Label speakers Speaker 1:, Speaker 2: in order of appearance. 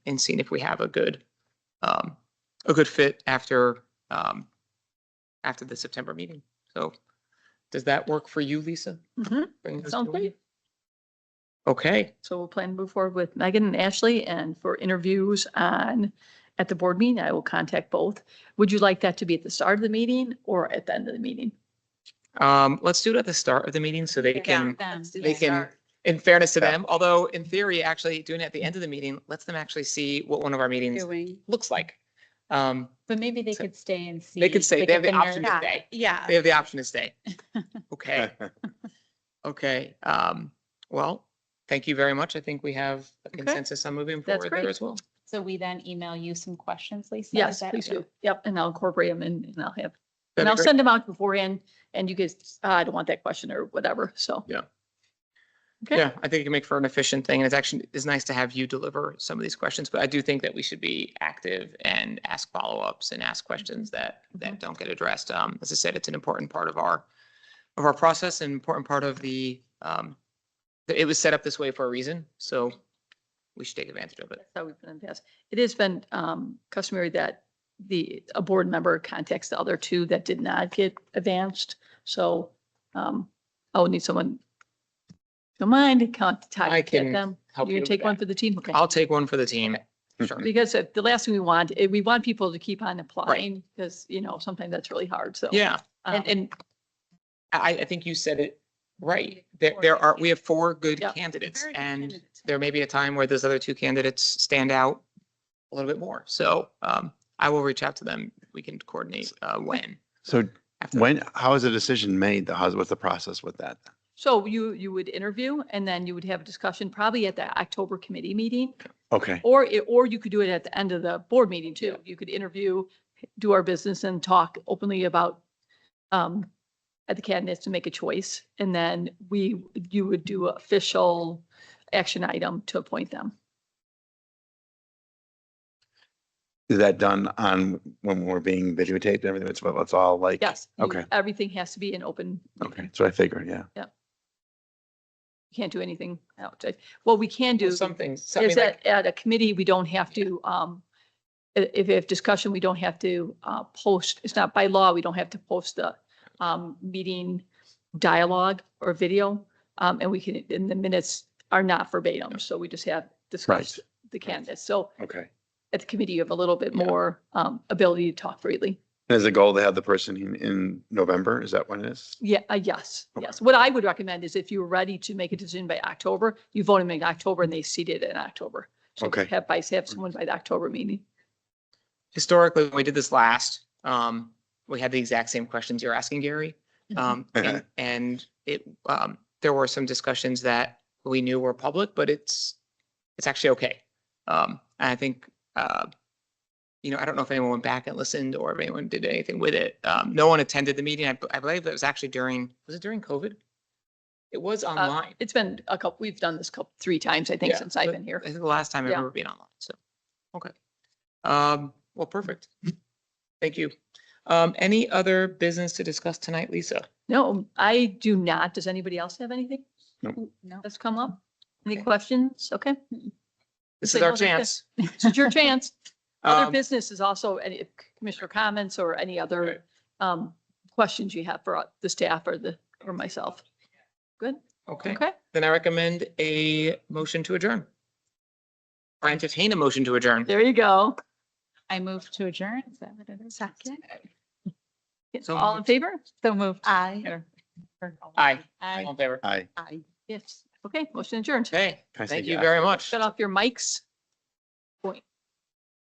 Speaker 1: and seeing if we have a good, um, a good fit after, um, after the September meeting. So does that work for you, Lisa?
Speaker 2: Mhm.
Speaker 1: Bring this
Speaker 2: Sounds
Speaker 1: to
Speaker 2: great.
Speaker 1: you? Okay,
Speaker 2: So we'll plan to move forward with Megan and Ashley and for interviews on, at the board meeting, I will contact both. Would you like that to be at the start of the meeting or at the end of the meeting?
Speaker 1: um, let's do it at the start of the meeting so they can, they can, in fairness to
Speaker 3: Yeah.
Speaker 1: them, although in theory, actually doing it at the end of the meeting, lets them actually see what one of our meetings
Speaker 4: Doing,
Speaker 1: looks like. Um,
Speaker 4: but maybe they
Speaker 1: So-
Speaker 4: could stay and see.
Speaker 1: they could say they have
Speaker 4: get
Speaker 1: the option to
Speaker 4: nerd-
Speaker 1: stay.
Speaker 4: Yeah.
Speaker 1: They have the option to stay. Okay. Okay, um, well, thank you very much. I think we have a consensus on moving
Speaker 2: That's
Speaker 1: forward there
Speaker 2: great.
Speaker 1: as well.
Speaker 4: So we then email you some questions, Lisa? Is
Speaker 2: Yes,
Speaker 4: that
Speaker 2: please
Speaker 4: okay?
Speaker 2: do. Yep, and I'll incorporate them and and I'll have, and
Speaker 1: That'd be
Speaker 2: I'll
Speaker 1: great.
Speaker 2: send them out beforehand and you guys, "Ah, I don't want that question or whatever, so.
Speaker 1: Yeah.
Speaker 2: Okay.
Speaker 1: Yeah, I think it can make for an efficient thing and it's actually, it's nice to have you deliver some of these questions, but I do think that we should be active and ask follow-ups and ask questions
Speaker 2: Mm-hmm.
Speaker 1: that, that don't get addressed. Um, as I said, it's an important part of our, of our process and important part of the, um, that it was set up this way for a reason, so we should take advantage of it.
Speaker 2: That's how we've been in the past. It has been um, customary that the, a board member contacts the other two that did not get advanced. So um, I would need someone, if you don't mind,
Speaker 1: I
Speaker 2: contact
Speaker 1: can
Speaker 2: them.
Speaker 1: help you
Speaker 2: You're gonna
Speaker 1: with
Speaker 2: take one
Speaker 1: that.
Speaker 2: for the team, okay?
Speaker 1: I'll take one for the team. Sure.
Speaker 2: Because uh, the last thing we want, eh, we want people to keep on applying because, you know, sometimes that's really hard, so.
Speaker 1: Yeah.
Speaker 2: um,
Speaker 1: And, and I, I think you said it right.
Speaker 4: We
Speaker 1: There,
Speaker 4: have four
Speaker 1: there
Speaker 4: good
Speaker 1: are, we have four good
Speaker 2: Yep.
Speaker 1: candidates
Speaker 4: Very good
Speaker 1: and
Speaker 4: candidates.
Speaker 1: there may be a time where those other two candidates stand out a little bit more. So, um, I will reach out to them. We can coordinate, uh, when.
Speaker 3: So
Speaker 1: after that.
Speaker 3: when, how is a decision made? The- How's, what's the process with that?
Speaker 2: So you, you would interview and then you would have a discussion probably at the October committee meeting.
Speaker 3: Okay,
Speaker 2: Or, it- or you could do it at the end of the board meeting too. You could interview, do our business and talk openly about um, at the candidates to make a choice. And then we, you would do official action item to appoint them.
Speaker 3: is that done on, when we're being videotaped and everything? It's, it's all like,
Speaker 2: Yes. you-
Speaker 3: Okay.
Speaker 2: Everything has to be an open.
Speaker 3: okay, that's what I figured, yeah.
Speaker 2: You Can't do anything outside. What we can do
Speaker 1: Well,
Speaker 2: is
Speaker 1: Some things, so- I mean, like,
Speaker 2: that at a committee, we don't have to, um, i- if, if discussion, we don't have to uh, post, it's not by law, we don't have to post the um, meeting dialogue or video. Um, and we can, and the minutes are not verbatim, so we just have discussed the candidates. So
Speaker 3: Okay.
Speaker 2: at the committee, you have a little bit
Speaker 1: Yeah.
Speaker 2: more um, ability to talk freely.
Speaker 3: And is the goal to have the person in, in November? Is that what it is?
Speaker 2: Yeah, uh, yes,
Speaker 3: Okay.
Speaker 2: yes. What I would recommend is if you're ready to make a decision by October, you vote them in October and they seat it in October. So
Speaker 3: Okay.
Speaker 2: Have, by have someone by the October meeting.
Speaker 1: historically, when we did this last, um, we had the exact same questions you're asking, Gary. Um, and, and it, um, there were some discussions that we knew were public, but it's, it's actually okay. Um, and I think, uh, you know, I don't know if anyone went back and listened or if anyone did anything with it. Um, no one attended the meeting. I, b- I believe that was actually during, was it during COVID? It was online.
Speaker 2: It's been a couple, we've done this couple, three times, I think,
Speaker 1: Yeah,
Speaker 2: since I've
Speaker 1: but
Speaker 2: been here.
Speaker 1: I think the last time I
Speaker 2: Yeah.
Speaker 1: remember being online, so, okay. Um, well, perfect. Thank you. Um, any other business to discuss tonight, Lisa?
Speaker 2: No, I do not. Does anybody else have anything
Speaker 4: No.
Speaker 2: that's come up? Any
Speaker 1: Okay.
Speaker 2: questions? Okay,
Speaker 1: This
Speaker 2: Say
Speaker 1: is our
Speaker 2: no, that's it.
Speaker 1: chance.
Speaker 2: this is your chance. Other
Speaker 1: Um,
Speaker 2: business is also any commissioner comments or any
Speaker 1: Right.
Speaker 2: other um, questions you have for uh, the staff or the, or myself. Good,
Speaker 1: Okay,
Speaker 2: okay.
Speaker 1: then I recommend a motion to adjourn. Or entertain a motion to adjourn.
Speaker 2: There you go.
Speaker 4: I move to adjourn. Is that what it is? Second.
Speaker 1: So
Speaker 2: All in
Speaker 1: moved.
Speaker 2: favor?
Speaker 4: So move aye or. or-
Speaker 1: Aye.
Speaker 4: Aye.
Speaker 1: All in favor?
Speaker 3: Aye.
Speaker 4: Aye.
Speaker 2: Yes. Okay, motion adjourned.
Speaker 1: Okay,
Speaker 3: Can I say
Speaker 1: thank you
Speaker 3: aye?
Speaker 1: very much.
Speaker 2: Shut off your mics.